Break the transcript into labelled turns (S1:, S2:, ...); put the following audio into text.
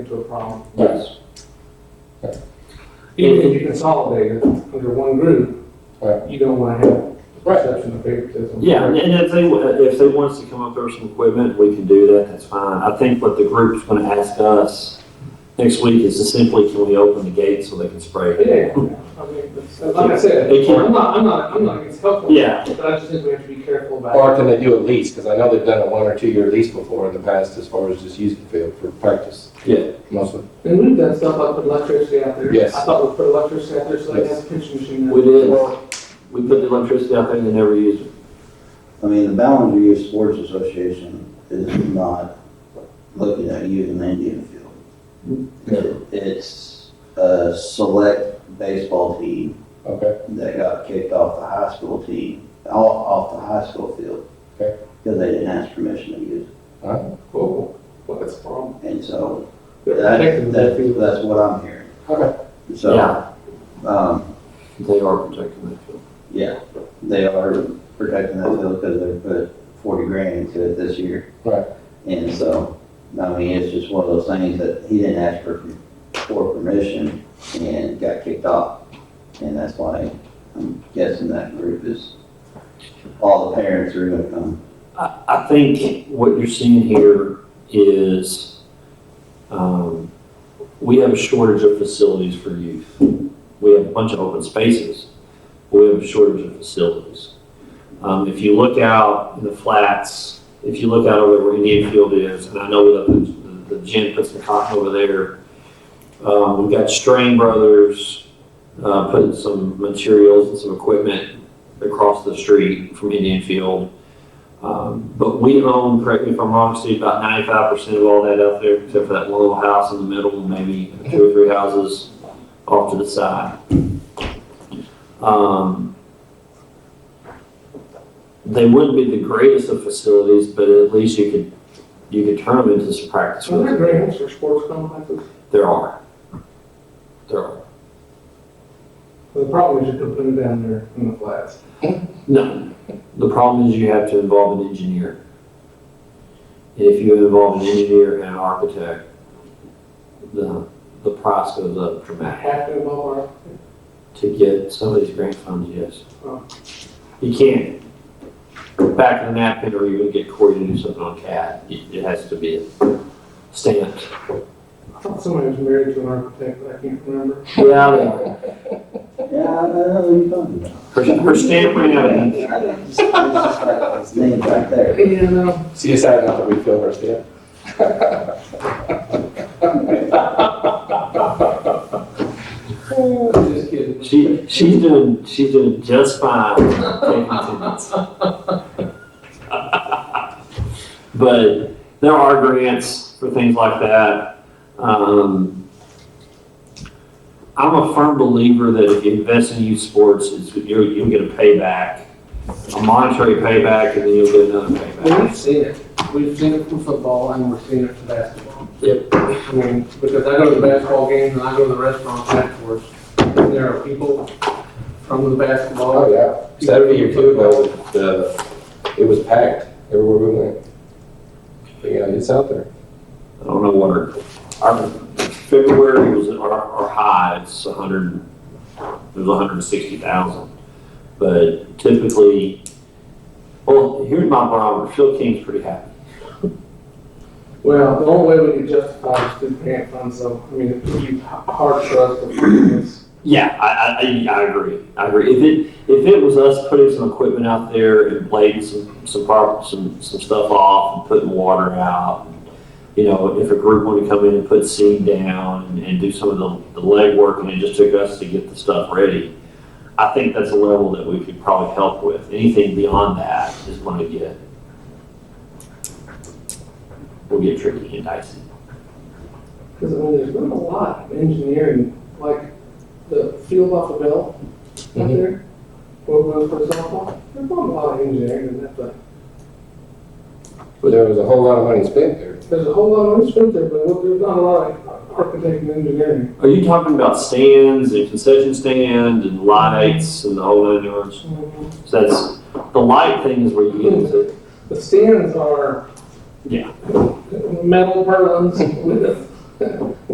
S1: into a problem.
S2: Yes.
S1: Even if you consolidate it under one group,
S2: Right.
S1: you don't want to have the
S2: Right.
S1: perception of favoritism.
S3: Yeah, and- and if they, if they want us to come up there with some equipment, we can do that, that's fine. I think what the group's gonna ask us next week is to simply, can we open the gate so they can spray?
S1: Yeah, I mean, that's- like I said,
S3: They can't-
S1: I'm not, I'm not, I'm not against helpful,
S3: Yeah,
S1: but I just think we have to be careful about
S2: Or can they do a lease? Because I know they've done a one or two year lease before in the past as far as just using the field for practice.
S3: Yeah.
S2: Mostly.
S1: it. And we've done stuff like put electricity out there.
S2: Yes.
S1: I thought we put electricity out there so they
S2: Yes.
S1: have a pinch machine.
S3: we did, we put the electricity out there and they never used it.
S4: I mean, the Ballinger Youth Sports Association is not looking at using the Indian field. It- It's a select baseball team
S2: Okay.
S4: that got kicked off the high school team, off, off the high school field.
S2: Okay.
S4: Because they didn't ask permission to use it.
S1: Cool, well, that's a problem.
S4: And so
S1: Protecting
S4: that,
S1: the
S4: that,
S1: field.
S4: that's what I'm hearing.
S2: Okay.
S4: So,
S3: Yeah,
S4: um,
S3: they are protecting that field.
S4: yeah, they are protecting that field because they put forty grand into it this year.
S2: Right.
S4: And so, I mean, it's just one of those things that he didn't ask for, for permission and got kicked off. And that's why I'm guessing that group is, all the parents are gonna come.
S3: I, I think what you're seeing here is, um, we have a shortage of facilities for youth. We have a bunch of open spaces, but we have a shortage of facilities. Um, if you look out in the flats, if you look out over where Indian Field is, and I know that the, the gym puts the cotton over there. Um, we've got Strain Brothers, uh, putting some materials and some equipment across the street from Indian Field. Um, But we own, correct me if I'm wrong, Steve, about ninety-five percent of all that out there, except for that one little house in the middle, and maybe two or three houses off to the side. Um, They wouldn't be the greatest of facilities, but at least you could, you could turn them into some practice.
S1: So there are
S3: fields.
S1: grants or sports complexes.
S3: There are. There are.
S1: The problem is you could put them down there in the flats.
S3: No, the problem is you have to involve an engineer. And if you involve an engineer and an architect, the, the price goes up dramatically.
S1: Half of them are,
S3: To get some of these grant funds,
S1: Oh.
S3: yes. You can't back of the napkin or you're gonna get Cory to do something on CAD. It it has to be stamped.
S1: I thought somebody was married to an architect, but I can't remember.
S3: Yeah, they are.
S4: Yeah, I know what you're talking about.
S3: Her, her stamp ran out. of ink.
S4: It's just like His name's right there.
S1: You know,
S2: So you decided not to refill her stand?
S1: just kidding.
S3: She, she's doing, she's doing just fine taking attendance. But there are grants for things like that. Um, I'm a firm believer that if you invest in youth sports, it's, you're, you'll get a payback, a monetary payback, and then you'll get another payback.
S5: We've seen it. We've seen it from football and we're seeing it from basketball.
S3: Yep.
S5: I mean, because I go to the basketball games and I go to the restaurants afterwards. and There are people from the
S2: Oh,
S5: basketball.
S2: yeah. Saturday or two ago, the, it was packed everywhere we went. But, Yeah, it's out there.
S3: I don't know what our, our, February was our, our high, it's a hundred, it was hundred and sixty thousand. But typically, well, here's my barometer, Phil King's pretty happy.
S1: Well, the only way we can justify is through grant funds, so, I mean, it would be h- hard for us to prove this.
S3: Yeah, I, I, I, I agree, I agree. If it, if it was us putting some equipment out there and blading some, some prop, some, some stuff off and putting water out, and, you know, if a group wanted to come in and put seed down and, and do some of the, the legwork and it just took us to get the stuff ready, I think that's a level that we could probably help with. Anything beyond that is gonna get, will get tricky and dicey.
S1: Because, I mean, there's not a lot of engineering, like the field off the bell up
S2: Mhm.
S1: there, where we for softball, there's not a lot of engineering in that thing.
S2: But there was a whole lot of money spent there.
S1: There's a whole lot of spent there, but there's not a lot of architect and engineering.
S3: Are you talking about stands and concession stand and lights and the whole nine yards? So that's, the light thing is where you get into,
S1: The stands are
S3: Yeah.
S1: metal purlins with